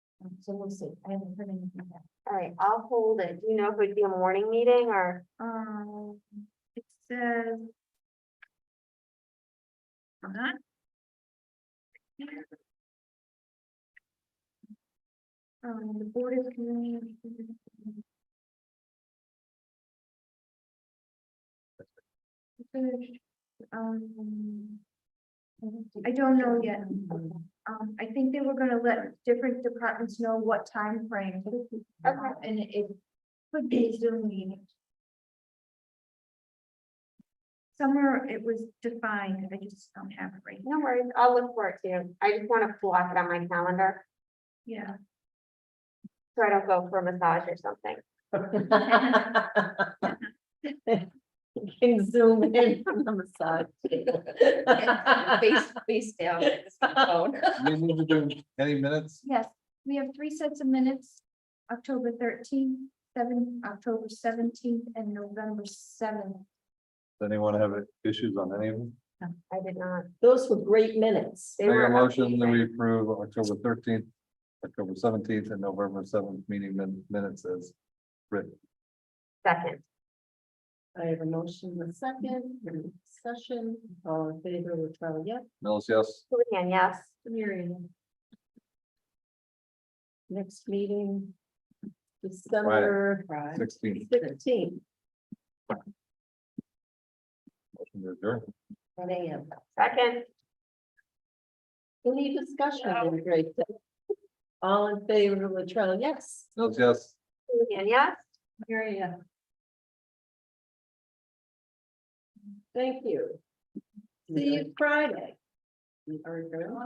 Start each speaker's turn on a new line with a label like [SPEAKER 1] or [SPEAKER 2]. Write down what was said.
[SPEAKER 1] Um, so we'll see, I haven't heard anything yet.
[SPEAKER 2] All right, I'll hold it. Do you know if it'd be a morning meeting or?
[SPEAKER 1] Um, it says. Hold on. Um, the board is convening. Finished, um. I don't know yet. Um, I think they were gonna let different departments know what time frame.
[SPEAKER 2] Okay.
[SPEAKER 1] And it could be Zoom meeting. Somewhere it was defined, I just don't have it right now,
[SPEAKER 2] No worries, I'll look for it too. I just want to block it on my calendar
[SPEAKER 1] yeah.
[SPEAKER 2] so I don't go for a massage or something.
[SPEAKER 3] You Can zoom in from the massage.
[SPEAKER 4] Face, face down. it's my phone.
[SPEAKER 5] We need to do any minutes?
[SPEAKER 1] Yes, we have three sets of minutes, October thirteenth, seven, October seventeenth, and November seventh.
[SPEAKER 5] Does anyone have issues on any of them?
[SPEAKER 2] I did not.
[SPEAKER 3] Those were great minutes.
[SPEAKER 2] They
[SPEAKER 5] Make
[SPEAKER 2] were
[SPEAKER 5] a motion that we
[SPEAKER 2] amazing.
[SPEAKER 5] approve October thirteenth, October seventeenth and November seventh meeting min- minutes as written.
[SPEAKER 2] Second,
[SPEAKER 3] I have a motion in a second, any discussion, all in favor, Latrell, yes,
[SPEAKER 5] Mills, yes?
[SPEAKER 2] Houlihan, yes.
[SPEAKER 3] Miriam. Next meeting, December
[SPEAKER 5] Sixteen.
[SPEAKER 3] sixteenth,
[SPEAKER 5] Motion to adjourn.
[SPEAKER 3] one AM.
[SPEAKER 2] Second,
[SPEAKER 3] Any discussion on the great day? All in favor, Latrell, yes.
[SPEAKER 5] Mills, yes?
[SPEAKER 2] Houlihan, yes.
[SPEAKER 3] Miriam. Thank you. See you Friday. We are adjourned.